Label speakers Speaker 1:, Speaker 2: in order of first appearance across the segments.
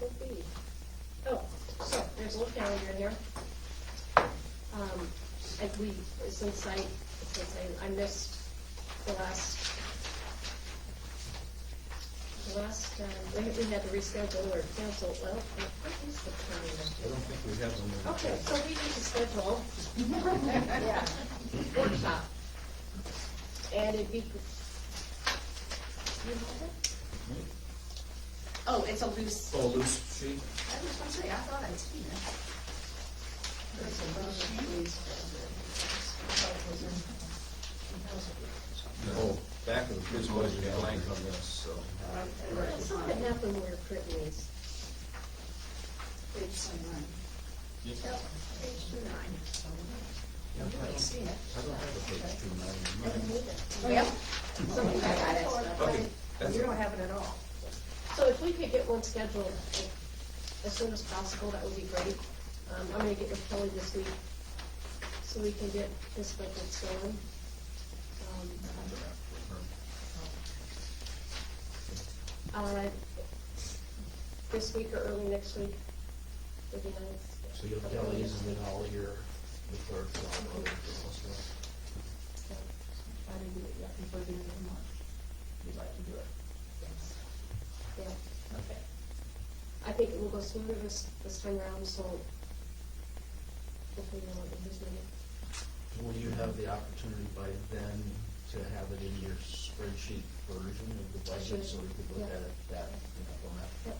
Speaker 1: would be? Oh, so, there's a little calendar in here. Um, I, we, since I, since I, I missed the last, the last, um, we, we had to reschedule or cancel, well, what is the
Speaker 2: I
Speaker 1: calendar?
Speaker 2: don't think we have one.
Speaker 1: Okay, so we need to schedule workshop. And it'd be, you have it?
Speaker 3: Oh, it's a loose,
Speaker 2: Oh, loose sheet?
Speaker 3: I was gonna say, I thought I'd seen it.
Speaker 2: No. Oh, Back of the, this was blank on this, so.
Speaker 1: Something happened where printing is.
Speaker 3: Page twenty-nine.
Speaker 2: Yep.
Speaker 3: Yep, page twenty-nine.
Speaker 2: I don't
Speaker 3: I've
Speaker 2: have
Speaker 3: seen it.
Speaker 2: a page two nine.
Speaker 3: Yep. Something like
Speaker 2: Okay,
Speaker 3: that.
Speaker 2: that's,
Speaker 4: You don't have it at all.
Speaker 1: So if we could get one scheduled as soon as possible, that would be great. Um, I'm gonna get with Kelly this week, so we can get this budget going. Um, uh, This week or early next week would be nice.
Speaker 5: So you'll tell these and then all your, the clerk, all the
Speaker 4: I didn't do it yet before the end of March. You'd like to do it.
Speaker 1: Yeah,
Speaker 4: Okay.
Speaker 1: I think it will go smoother this, this time around, so hopefully we'll have this meeting.
Speaker 5: Will you have the opportunity by then to have it in your spreadsheet version of the budget, so we could look at it that, you know, format?
Speaker 1: Yep.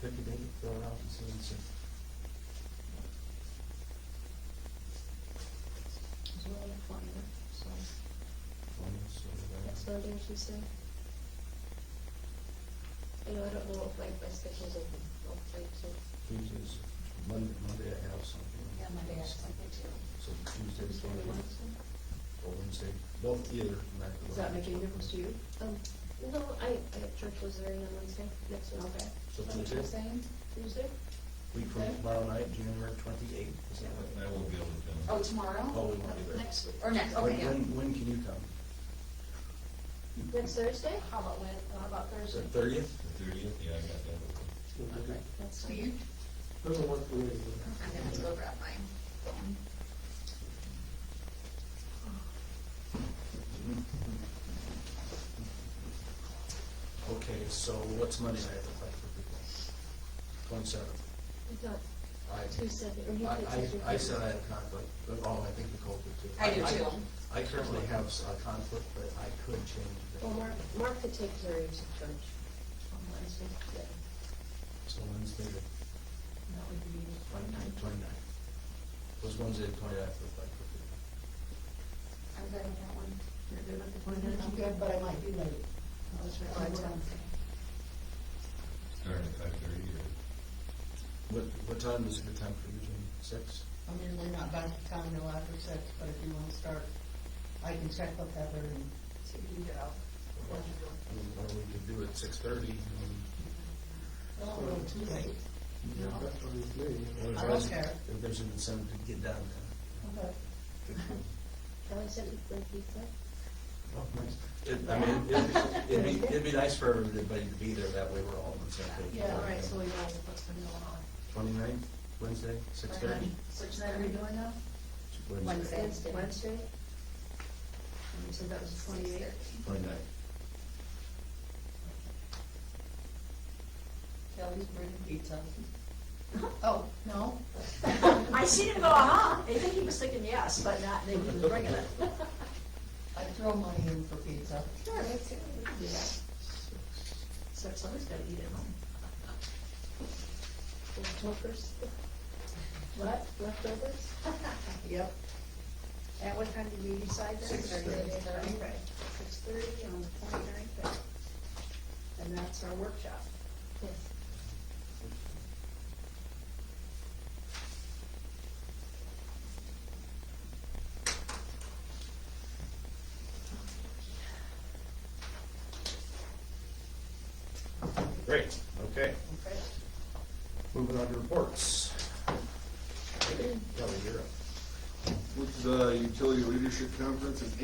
Speaker 5: Pick a date, fill it out, and see and see.
Speaker 4: It's really important, so.
Speaker 1: Next Monday, Tuesday? You know, I don't know if like my schedule's open, I'll try to.
Speaker 5: Tuesdays, Monday, Monday I have something.
Speaker 3: Yeah, Monday I have something too.
Speaker 5: So Tuesday's one, or Wednesday, both either.
Speaker 4: Does that make any difference to you?
Speaker 1: Um, no, I, I have church with Larry on Wednesday, next Wednesday.
Speaker 5: So
Speaker 3: What was I
Speaker 5: Tuesday,
Speaker 3: saying?
Speaker 1: Tuesday?
Speaker 5: week from tomorrow night, January twenty-eighth, is that what?
Speaker 2: I won't be able to.
Speaker 3: Oh, tomorrow?
Speaker 5: Oh, we won't be there.
Speaker 3: Next week, or next, okay,
Speaker 5: When-
Speaker 3: yeah.
Speaker 5: When, when can you come?
Speaker 1: Next Thursday?
Speaker 3: How about when, how about
Speaker 5: Is
Speaker 3: Thursday?
Speaker 5: it thirtieth?
Speaker 2: The thirtieth, yeah, I got that.
Speaker 1: That's
Speaker 3: Do
Speaker 1: fine.
Speaker 3: you?
Speaker 6: Doesn't work for me.
Speaker 3: I'm gonna have to go grab mine.
Speaker 5: Okay, so what's Monday night look like for people? Twenty-seventh.
Speaker 1: You got
Speaker 5: I,
Speaker 1: two seven, or you
Speaker 5: I,
Speaker 1: could
Speaker 5: I- I
Speaker 1: say.
Speaker 5: said I had a conflict, but, oh, I think Nicole did too.
Speaker 3: I do too.
Speaker 5: I currently have a conflict, but I could change
Speaker 1: Well,
Speaker 5: that.
Speaker 1: Mark, Mark could take Larry to church.
Speaker 4: On Wednesday? Yeah.
Speaker 5: So Wednesday, the
Speaker 4: That would be
Speaker 5: twenty-ninth, twenty-ninth. Was Wednesday, the twenty-ninth look like for people?
Speaker 3: I'm good with that one.
Speaker 4: You're good with the twenty-ninth?
Speaker 6: I'm good, but I might be late.
Speaker 3: Oh, it's Wednesday.
Speaker 2: Starting at five thirty or?
Speaker 5: What, what time is a good time for you, Jim? Six?
Speaker 6: I'm usually not done at town until after six, but if you want to start, I can check with Heather and
Speaker 4: So you can get out.
Speaker 5: I mean, Or we could do it six thirty.
Speaker 6: Well, a little too late. I
Speaker 5: I
Speaker 6: don't care.
Speaker 5: If there's an incentive to get down there.
Speaker 6: Okay.
Speaker 1: Kelly said he'd bring pizza.
Speaker 5: It- I mean, it'd- it'd be, it'd be nice for everybody to be there, that way we're all on the same page.
Speaker 4: Yeah, all right, so we know what's been going on.
Speaker 5: Twenty-ninth, Wednesday, six thirty?
Speaker 3: Which night are we doing now? Wednesday.
Speaker 1: Wednesday. Wednesday?
Speaker 4: And you said that was the twenty-eighth?
Speaker 5: Twenty-ninth.
Speaker 6: Kelly's bringing pizza. Oh, no?
Speaker 4: I seen him go, uh-huh, I think he was thinking yes, but not, they were bringing it.
Speaker 6: I throw money in for pizza.
Speaker 4: Sure, me too. We can do that. So somebody's gotta eat at home.
Speaker 1: Leftovers?
Speaker 4: What?
Speaker 1: Leftovers?
Speaker 4: Yep. At what time did we decide that?
Speaker 5: Six thirty.
Speaker 4: Okay, six thirty on the twenty-ninth. And that's our workshop.
Speaker 1: Yes.
Speaker 5: Great, okay. Moving on to reports. Kelly, you're up.
Speaker 7: With the Utility Leadership Conference in